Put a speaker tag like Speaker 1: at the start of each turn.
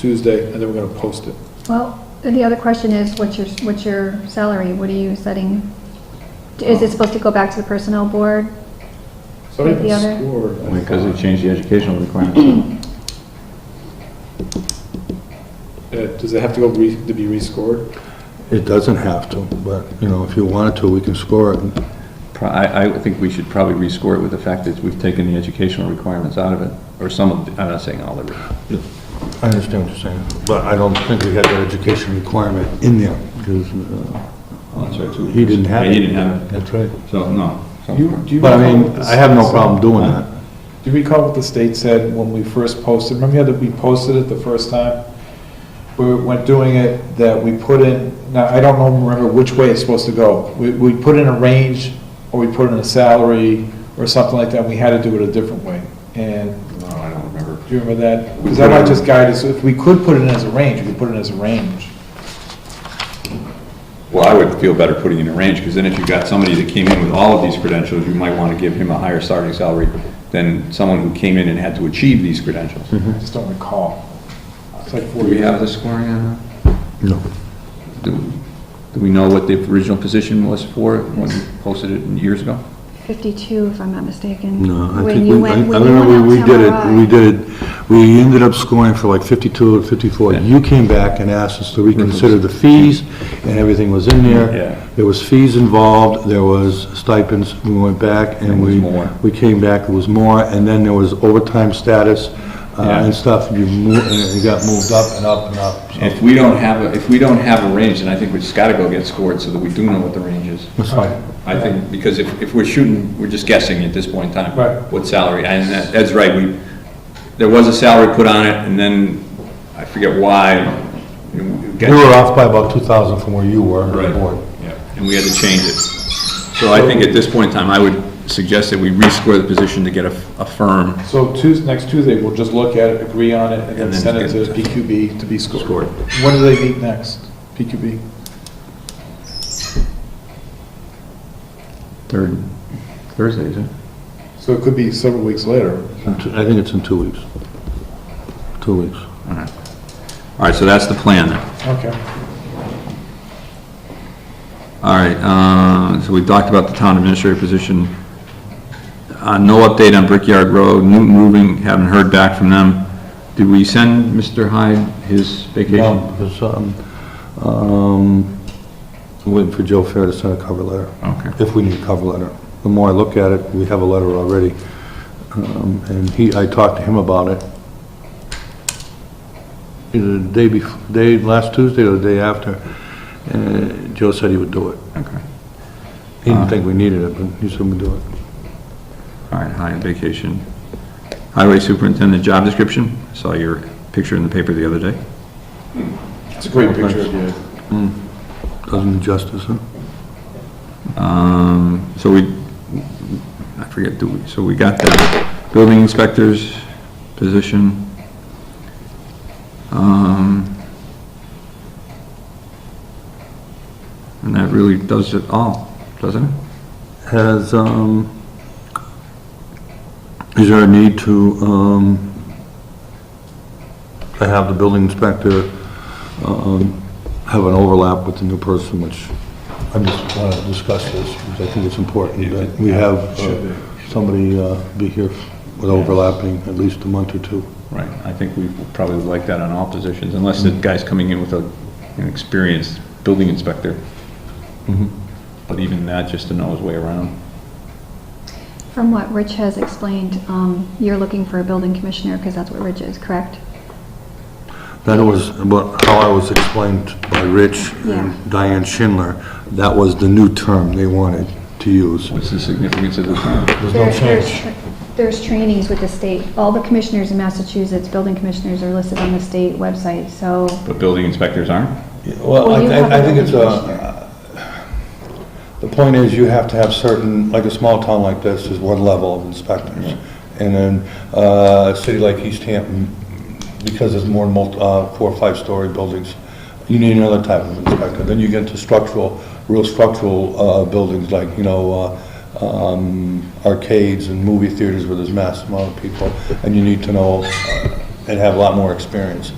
Speaker 1: Tuesday, and then we're gonna post it.
Speaker 2: Well, the other question is, what's your, what's your salary? What are you setting? Is
Speaker 3: Oh.
Speaker 2: it supposed to go back to the personnel board?
Speaker 1: So I
Speaker 2: Like the other?
Speaker 1: can score. I
Speaker 4: Because they
Speaker 1: thought.
Speaker 4: changed the educational requirements.
Speaker 1: Uh, Does it have to go re, to be rescored?
Speaker 3: It doesn't have to, but, you know, if you wanted to, we can score it.
Speaker 4: Pro- I, I think we should probably rescore it with the fact that we've taken the educational requirements out of it, or some of, the- I'm not saying all of it.
Speaker 3: I understand what you're saying, but I don't think we had that education requirement in there, because uh,
Speaker 4: Oh,
Speaker 3: he didn't have it.
Speaker 4: He didn't have it,
Speaker 3: That's right.
Speaker 4: so, no. So-
Speaker 1: You- do you
Speaker 3: But I
Speaker 1: recall
Speaker 3: mean,
Speaker 1: what the
Speaker 3: I have no
Speaker 1: state
Speaker 3: problem
Speaker 1: said?
Speaker 3: doing that.
Speaker 1: Do you recall what the state said when we first posted? Remember how that we posted it the first time? We went doing it, that we put in, now, I don't know, remember which way it's supposed to go. We, we put in a range, or we put in a salary, or something like that, we had to do it a different way. And
Speaker 4: No, I don't remember.
Speaker 1: Do you remember that? Because that might just guide us, if we could put it in as a range, we could put it in as a range.
Speaker 4: Well, I would feel better putting in a range, because then if you've got somebody that came in with all of these credentials, you might want to give him a higher starting salary than someone who came in and had to achieve these credentials.
Speaker 3: Mm-hmm.
Speaker 1: I just don't recall. It's like
Speaker 4: Do we
Speaker 1: forty,
Speaker 4: have the scoring on that?
Speaker 3: No.
Speaker 4: Do do we know what the original position was for it when we posted it years ago?
Speaker 2: 52, if I'm not mistaken.
Speaker 3: No, Uh, I
Speaker 2: When
Speaker 3: think,
Speaker 2: you
Speaker 3: we- I I
Speaker 2: went- when you
Speaker 3: remember
Speaker 2: went
Speaker 3: we
Speaker 2: out
Speaker 3: did
Speaker 2: to
Speaker 3: it,
Speaker 2: MRI.
Speaker 3: we did it, we ended up scoring for like 52 or 54.
Speaker 4: Yeah.
Speaker 3: You came back and asked us to reconsider the fees, and everything was in there.
Speaker 4: Yeah.
Speaker 3: There was fees involved, there was stipends, we went back
Speaker 4: It
Speaker 3: and
Speaker 4: was
Speaker 3: we,
Speaker 4: more.
Speaker 3: we came back, it was more, and then there was overtime status uh,
Speaker 4: Yeah.
Speaker 3: and stuff, you moved, and it got moved up and up and up. so
Speaker 4: If we don't have, a if we don't have a range, then I think we just gotta go get scored so that we do know what the range is.
Speaker 3: That's fine.
Speaker 4: I think, because if, if we're shooting, we're just guessing at this point in time.
Speaker 1: Right.
Speaker 4: What salary, and that- that's right, we, there was a salary put on it, and then, I forget why. you know, we got-
Speaker 3: We were off by about 2,000 from where you were,
Speaker 4: Right,
Speaker 3: on board.
Speaker 4: yeah, and we had to change it. So I think at this point in time, I would suggest that we rescore the position to get a, a firm
Speaker 1: so Tuesday, next Tuesday, we'll just look at it, agree on it, and then
Speaker 4: And then
Speaker 1: send it to
Speaker 4: get-
Speaker 1: PQB to be scored.
Speaker 4: score.
Speaker 1: When do they meet next, PQB?
Speaker 4: Third, Thursday, is it?
Speaker 1: So it could be several weeks later.
Speaker 3: In two- I think it's in two weeks. Two weeks.
Speaker 4: All right, so that's the plan then.
Speaker 1: Okay.
Speaker 4: All right, uh, so we talked about the town administrator position. Uh, no update on Brickyard Road, Newton Moving, haven't heard back from them. Did we send Mr. Hyde his
Speaker 3: No,
Speaker 4: vacation?
Speaker 3: because, um, um, I'm waiting for Joe Fair to send a cover letter,
Speaker 4: Okay.
Speaker 3: if we need a cover letter. The more I look at it, we have a letter already, um, and he, I talked to him about it. Either the day bef, day, last Tuesday or the day after, and Joe said he would do it.
Speaker 4: Okay.
Speaker 3: He didn't think we needed it, but he said we'd do it.
Speaker 4: All right, Hyde vacation. Highway superintendent job description, saw your picture in the paper the other day.
Speaker 1: It's a great picture of you.
Speaker 3: Doesn't do justice, huh?
Speaker 4: Um, so we, I forget, do we, so we got the building inspector's position. Um, and that really does it all, doesn't it?
Speaker 3: Has, um, is there a need to, um, to have the building inspector, um, have an overlap with the new person, which I just want to discuss this, because I think it's important that we have uh, somebody uh, be here with overlapping at least a month or two.
Speaker 4: Right, I think we probably would like that on all positions, unless the guy's coming in with a, an experienced building inspector. Mm-hmm. But even that, just to know his way around.
Speaker 2: From what Rich has explained, um, you're looking for a building commissioner, because that's what Rich is, correct?
Speaker 3: That was about how I was explained by Rich
Speaker 2: Yeah.
Speaker 3: and Diane Schindler. That was the new term they wanted to use.
Speaker 4: What's the significance of the
Speaker 3: There's no
Speaker 2: There's there's
Speaker 3: change.
Speaker 2: tr- There's trainings with the state. All the commissioners in Massachusetts, building commissioners, are listed on the state website, so
Speaker 4: But building inspectors aren't?
Speaker 3: Well,
Speaker 2: Well,
Speaker 3: I,
Speaker 2: you have
Speaker 3: I- I
Speaker 2: a
Speaker 3: think it's
Speaker 2: building
Speaker 3: a, the point is you have to have certain, like a small town like this, there's one level of inspectors. And then, uh, a city like East Hampton, because there's more multi, uh, four or five-story buildings, you need another type of inspector. Then you get into structural, real structural, uh, buildings like, you know, uh, um, arcades and movie theaters where there's mass amount of people, and you need to know, uh, and have a lot more experience.